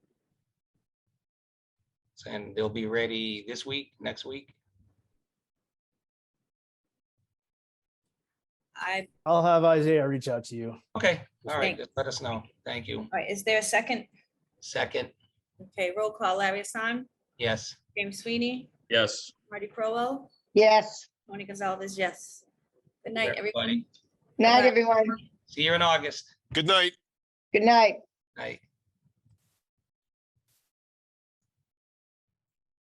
and they'll be ready this week, next week. I, I'll have Isaiah reach out to you. Okay, all right, Thank- just let us know. Thank you. all right, is there a second? Second, Okay, roll call, Larry Hassan, yes. James Sweeney, Yes. Marty Crowell, Yes. Tony Gonzalez, yes. Good night, everybody. everybody. Night, Bye-bye. everyone. See you in August. Good night. Good night. Night.